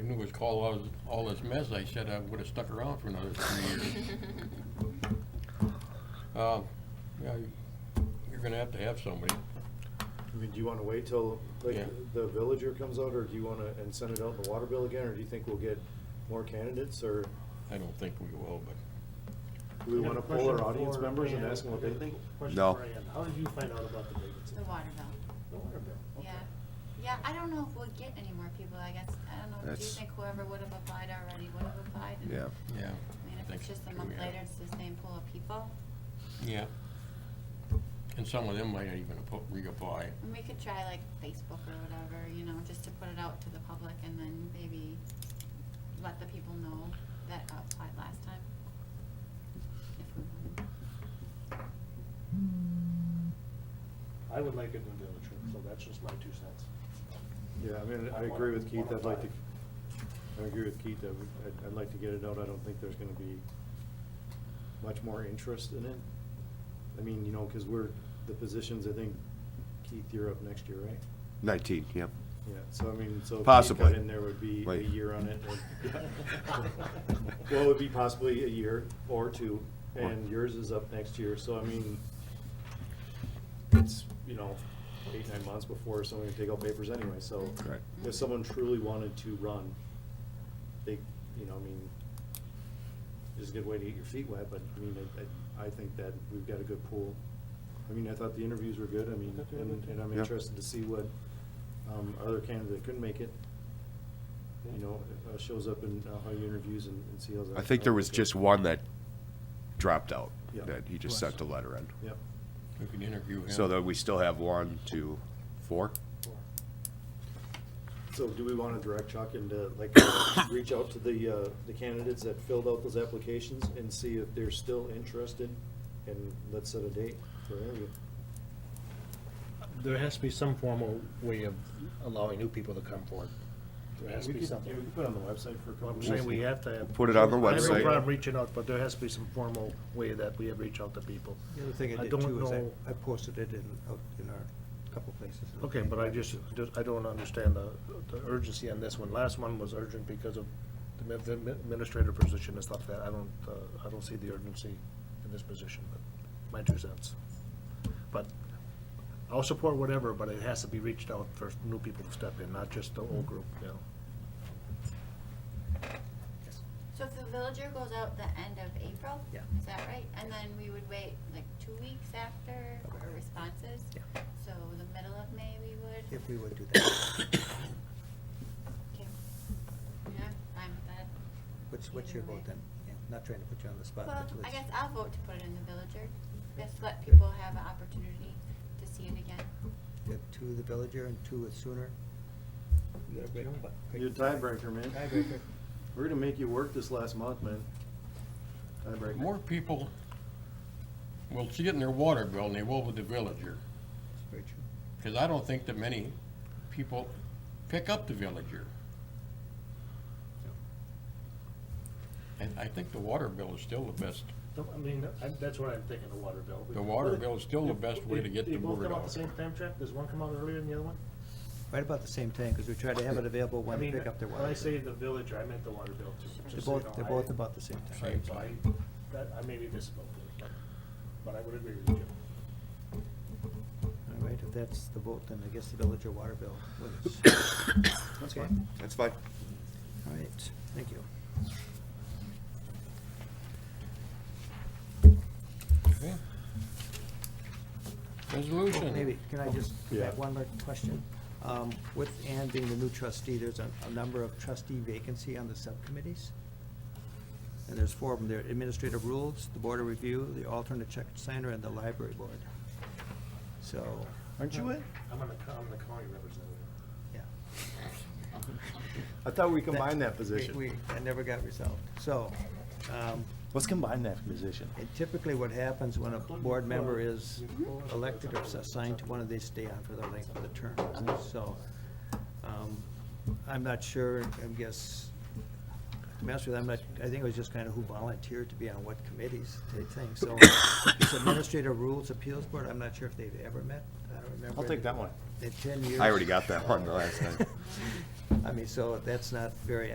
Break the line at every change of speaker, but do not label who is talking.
would call all, all this mess, I said I would've stuck around for another three years. Uh, yeah, you- you're gonna have to have somebody.
I mean, do you wanna wait till,
Yeah.
like, the villager comes out, or do you wanna, and send it out in the water bill again, or do you think we'll get more candidates, or
I don't think we will, but
do we
I got
wanna
a
poll our
question
audience
for
members and
Ann.
ask them what
I
they
got a
think?
question
No.
for Ann. How did you find out about the vacancy?
The water bill,
The water bill, okay.
yeah. Yeah, I don't know if we'll get any more people, I guess, I don't know, do you
That's-
think whoever would have applied already would have applied? And-
Yeah.
yeah.
I mean, if
think
it's just a
we
month
have-
later, it's the same pool of people,
Yeah. And some of them might even appo- reapply.
and we could try like Facebook or whatever, you know, just to put it out to the public and then maybe let the people know that applied last time. If we want.
I would like it in the villager, so that's just my two cents.
Yeah, I mean, I
I want
agree with Keith,
one
I'd like to,
of
I agree with Keith, that we- I'd, I'd like to get it out, I don't think there's gonna be much more interest in it. I mean, you know, cause we're, the positions, I think, Keith, you're up next year, right?
19, yep.
Yeah, so I mean, so. if we
Possibly.
Cut in there would be a
Wait.
year on it. or- Well, it would be possibly a year or two, and yours is up next year, so I mean, it's, you know, eight, nine months before someone can take out papers anyway, so.
Correct.
If someone truly wanted to run, they, you know, I mean, it's a good way to get your feet wet, but I mean, I, I- I think that we've got a good pool. I mean, I thought the interviews were good, I mean,
I thought they were
and,
good, too.
and I'm
Yeah.
interested to see what, um, other candidate that couldn't make it,
Yeah.
you know, uh, shows up in uh, how he interviews and and see how that.
I think there was just one that dropped out,
Yeah.
that he just sent a letter in.
Yep,
We can interview him.
So that we still have one, two, four?
Or-
so do we wanna direct Chuck into, like, reach out to the, uh, the candidates that filled out those applications and see if they're still interested? And let's set a date for interview.
There has to be some formal way of allowing new people to come forward. There has to
We
be
could-
something.
yeah, we could put it on the website for a couple.
Well, I'm
weeks.
saying we have to have.
Put it on the
I have
website.
no problem reaching out, but there has to be some formal way that we have reach out to people.
The other thing
I
I did
don't
too is
know-
I, I posted it in, out in our couple places.
Okay, but I just, just- I don't understand the, the urgency on this one. Last one was urgent because of the mi- the mi- administrator position and stuff that, I don't, uh, I don't see the urgency in this position, but my two cents. But I'll support whatever, but it has to be reached out for new people to step in, not just the old group, you know.
So if the villager goes out the end of April?
Yeah.
Is that right? And then we would wait like two weeks after for responses?
Yeah.
So the middle of May we would?
If we would do that,
Okay. Yeah, I'm with that.
what's, what's your
Either way.
vote then? Yeah, Not trying to put you on the spot,
Well,
but
I
let's,
guess I'll vote to put it in the villager. Just let
Good.
people have an opportunity to see it again.
you have two the villager and two with sooner. You got a break- what?
You're a tiebreaker, man.
Tiebreaker.
We're gonna make you work this last month, man. Tiebreaker.
More people will see it in their water bill than they will with the villager.
That's very true.
Because I don't think that many people pick up the villager. And I think the water bill is still the best.
No, I mean, I- that's what I'm thinking, the water bill.
The water bill is still the best way to get
They
the
both
word
come out the
out.
same time, Chuck? Does one come out earlier than the other one?
Right about the same time, because we try to have it available
I
when they
mean,
pick up their water.
When I
bill.
say the villager, I meant the water bill too.
They're
just so you know,
both, they're
I-
both about the same time.
Right, so I, that, I may be misspoken, but, but I would agree with you.
All right, if that's the vote, then I guess the villager water bill wins.
That's
Okay.
fine.
That's fine.
All right, thank you.
Okay. Resolution.
Maybe, can I just go back
Yeah.
one more question? Um, With Ann being the new trustee, there's a, a number of trustee vacancy on the subcommittees. And there's four of them, there are administrative rules, the board of review, the alternate check signer, and the library board. So,
Aren't you in?
I'm on the, co- I'm the county representative.
yeah.
I thought we combined that
We,
position.
we- that never got resolved. So, um,
Let's combine that position.
And typically what happens when a board member is elected or assigned to one of these, stay on for the length of the term. So, um, I'm not sure, I guess, to be honest with you, I'm not, I think it was just kind of who volunteered to be on what committees, type thing. So, it's Administrative Rules Appeals Board, I'm not sure if they've ever met, I don't remember.
I'll take that one.
In ten years.
I already got that one the last time.
I mean, so that's not very